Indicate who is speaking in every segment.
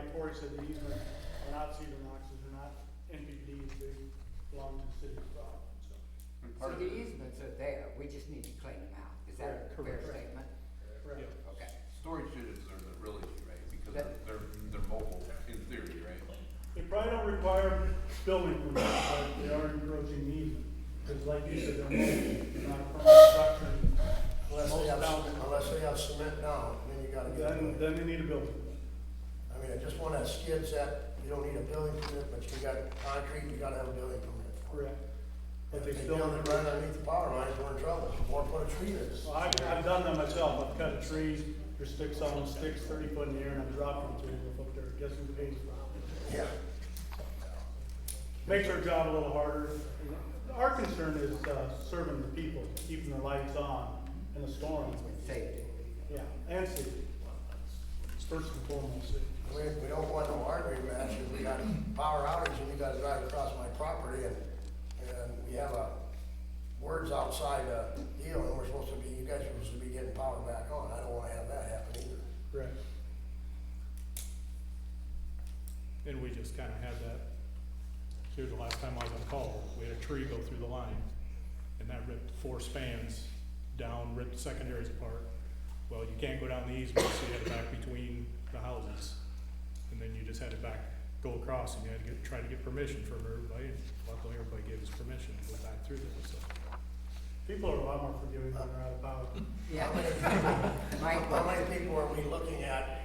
Speaker 1: boundaries of the easement are not Cedar Knox's, they're not NPD's, they belong to the city of Providence, so.
Speaker 2: So
Speaker 3: Part of
Speaker 2: the
Speaker 3: it-
Speaker 2: easements are there, we just need to clean them out. Is that a fair
Speaker 1: Correct.
Speaker 2: statement?
Speaker 1: Correct.
Speaker 2: Okay.
Speaker 3: Storage units are the real issue, right? Because they're,
Speaker 2: That-
Speaker 3: they're they're mobile in theory, right?
Speaker 1: They probably don't require building permits, but they are encroaching easement, because like you said, they're not- they're not a permanent structure.
Speaker 4: Unless they have, unless they have cement now, then you gotta get
Speaker 1: Then,
Speaker 4: it.
Speaker 1: then they need a building.
Speaker 4: I mean, I just want that skid set, you don't need a building permit, but you got concrete, you gotta have a building permit.
Speaker 1: Correct. But they
Speaker 4: If they
Speaker 1: still.
Speaker 4: build it right underneath the power lines, we're in trouble, or put a tree that's.
Speaker 1: Well, I've, I've done that myself, I've cut trees, there's sticks on them, sticks thirty foot in the air, and I've dropped them three foot up there, guess who pays for it?
Speaker 4: Yeah.
Speaker 1: Makes our job a little harder. Our concern is, uh, serving the people, keeping the lights on in the storm,
Speaker 2: With safety.
Speaker 1: yeah, and safety. First and foremost, safety.
Speaker 4: We, we don't want no artery match, if we got a power outage and you gotta drive across my property and, and we have a words outside a deal and we're supposed to be, you guys are supposed to be getting power back on, I don't wanna have that happen either.
Speaker 1: correct.
Speaker 5: And we just kinda had that, here the last time I was on call, we had a tree go through the line, and that ripped four spans down, ripped secondaries apart. Well, you can't go down the easement, so you had to back between the houses, and then you just had to back, go across, and you had to get, try to get permission from everybody, and luckily everybody gave us permission to go back through there, so.
Speaker 1: People are a lot more forgiving when they're out of power.
Speaker 2: Yeah. Mike,
Speaker 4: How many people are we looking at,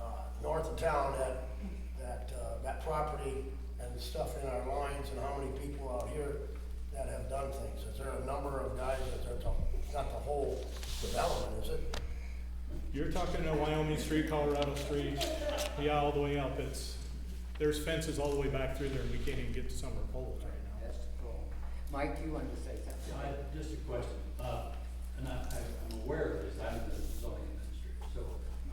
Speaker 4: uh, north of town at, that, uh, that property and the stuff in our lines, and how many people out here that have done things? Is there a number of guys that are, it's not the whole development, is it?
Speaker 5: You're talking to Wyoming Street, Colorado Street, yeah, all the way up, it's, there's fences all the way back through there, and we can't even get to some of the poles right now.
Speaker 2: That's cool. Mike, you wanted to say something?
Speaker 6: I, just a question, uh, and I, I- I'm aware of this, I'm in the zoning industry, so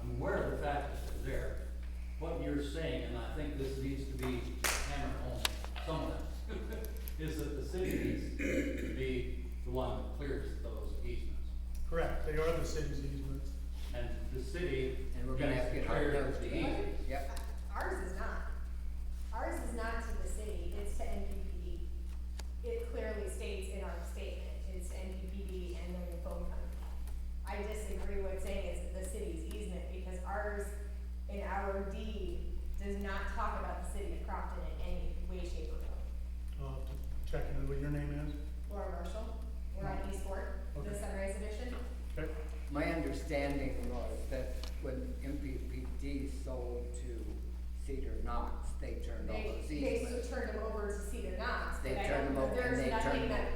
Speaker 6: I'm aware of the facts that are there. What you're saying, and I think this needs to be hammered home somewhere, is that the city needs to be the one that clears those easements.
Speaker 1: Correct, they are the city's easements.
Speaker 6: And the city
Speaker 2: And we're gonna
Speaker 6: needs
Speaker 2: have to
Speaker 6: to
Speaker 2: get our
Speaker 6: clear
Speaker 2: notes
Speaker 6: the
Speaker 2: together.
Speaker 6: easements.
Speaker 2: Yep.
Speaker 7: Ours is not. Ours is not to the city, it's to NPPD. It clearly states in our statement, it's NPPD and then the phone company. I disagree with saying it's the city's easement, because ours in our deed does not talk about the city of Crofton in any way, shape, or form.
Speaker 1: Uh, checking in what your name is.
Speaker 7: Laura Marshall, we're on East Fork, the
Speaker 1: Okay.
Speaker 7: Sunrise Edition.
Speaker 1: Okay.
Speaker 2: My understanding was that when MPPD sold to Cedar Knox, they turned all
Speaker 7: They,
Speaker 2: those
Speaker 7: they
Speaker 2: easements.
Speaker 7: turned them over to Cedar Knox,
Speaker 2: They
Speaker 7: but I
Speaker 2: turned
Speaker 7: don't,
Speaker 2: them over and
Speaker 7: there's
Speaker 2: they
Speaker 7: nothing
Speaker 2: turned,
Speaker 7: that,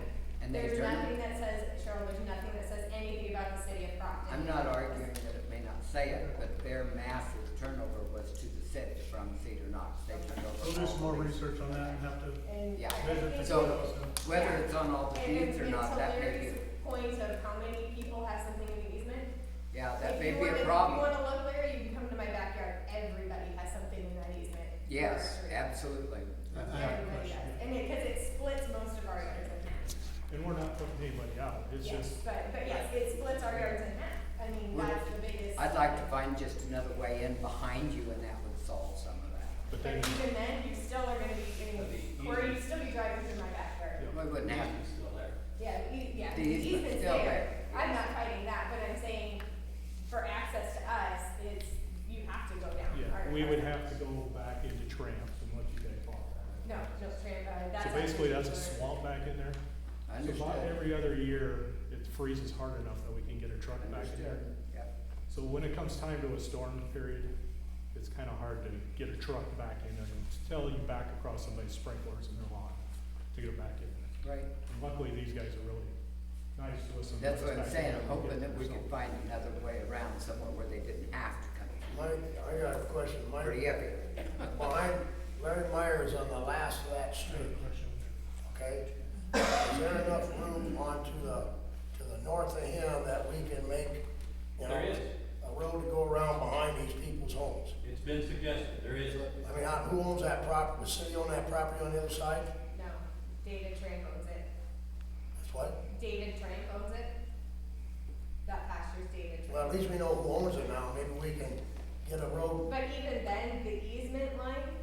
Speaker 2: and they
Speaker 7: there's nothing
Speaker 2: turned.
Speaker 7: that says, Cheryl, there's nothing that says anything about the city of Crofton.
Speaker 2: I'm not arguing that it may not say it, but their massive turnover was to the city from Cedar Knox. They turned over.
Speaker 1: We'll do
Speaker 2: all
Speaker 1: some
Speaker 2: the
Speaker 1: more
Speaker 2: leases.
Speaker 1: research on that and have to
Speaker 7: And
Speaker 2: Yeah.
Speaker 7: I
Speaker 1: visit the.
Speaker 7: think
Speaker 2: So-
Speaker 1: details.
Speaker 2: Whether it's on all the
Speaker 7: And
Speaker 2: deeds
Speaker 7: it's
Speaker 2: or not, that may be,
Speaker 7: Larry's point of how many people have something in the easement.
Speaker 2: yeah, that
Speaker 7: If
Speaker 2: may be
Speaker 7: you wanna-
Speaker 2: a
Speaker 7: If you
Speaker 2: problem.
Speaker 7: wanna look, Larry, you can come to my backyard, everybody has something in that easement.
Speaker 2: Yes,
Speaker 7: Everybody.
Speaker 2: absolutely.
Speaker 1: I have a
Speaker 7: Everybody
Speaker 1: question.
Speaker 7: does, and it, cause it splits most of our yards in half.
Speaker 5: And we're not putting anybody out, it's
Speaker 7: Yes,
Speaker 5: just,
Speaker 7: But, but yes, it splits our yards in half, I mean,
Speaker 2: Well,
Speaker 7: that's the biggest.
Speaker 2: I'd like to find just another way in behind you and that would solve some of that.
Speaker 5: but
Speaker 7: But
Speaker 5: then,
Speaker 7: even then, you still are gonna be getting,
Speaker 6: The
Speaker 7: or you
Speaker 6: easement.
Speaker 7: still be driving through my backyard.
Speaker 2: We wouldn't have,
Speaker 6: It's still there.
Speaker 7: Yeah, e- yeah,
Speaker 2: The
Speaker 7: the
Speaker 2: easement's
Speaker 7: easement's
Speaker 2: still
Speaker 7: there,
Speaker 2: there.
Speaker 7: I'm not fighting that, but I'm saying, for access to us, it's, you have to go down. our-
Speaker 5: yeah, we would have to go back into tramp and let you guys follow
Speaker 7: No, no, Tran, uh,
Speaker 5: that.
Speaker 7: that's.
Speaker 5: So basically, that's a swamp back in there.
Speaker 2: I
Speaker 5: So about
Speaker 2: understood.
Speaker 5: every other year, it freezes hard enough that we can get a truck back in there.
Speaker 2: Understood, yep.
Speaker 5: So when it comes time to a storm period, it's kinda hard to get a truck back in there until you back across somebody's sprinklers in their lawn to get it back in there.
Speaker 2: Right,
Speaker 5: And Luckily, these guys are really nice to us. and let
Speaker 2: that's
Speaker 5: us
Speaker 2: what I'm
Speaker 5: back in
Speaker 2: saying,
Speaker 5: there
Speaker 2: I'm
Speaker 5: and get
Speaker 2: hoping that we
Speaker 5: it.
Speaker 2: could find another way around somewhere where they didn't have to come in.
Speaker 4: Mike, I got a question, Mike,
Speaker 2: Pretty heavy.
Speaker 4: behind, Larry Meyer is on the last of that street, okay? Is there enough room onto the, to the north of him that we can make, you know,
Speaker 6: There is.
Speaker 4: a road to go around behind these people's homes?
Speaker 6: It's been suggested, there is,
Speaker 4: I mean, I- who owns that property, the city own that property on the other side?
Speaker 7: No, David Tran owns it,
Speaker 4: That's what,
Speaker 7: David Tran owns it. That pasture's David Tran.
Speaker 4: well, at least we know who owns it now, maybe we can get a road,
Speaker 7: But even then, the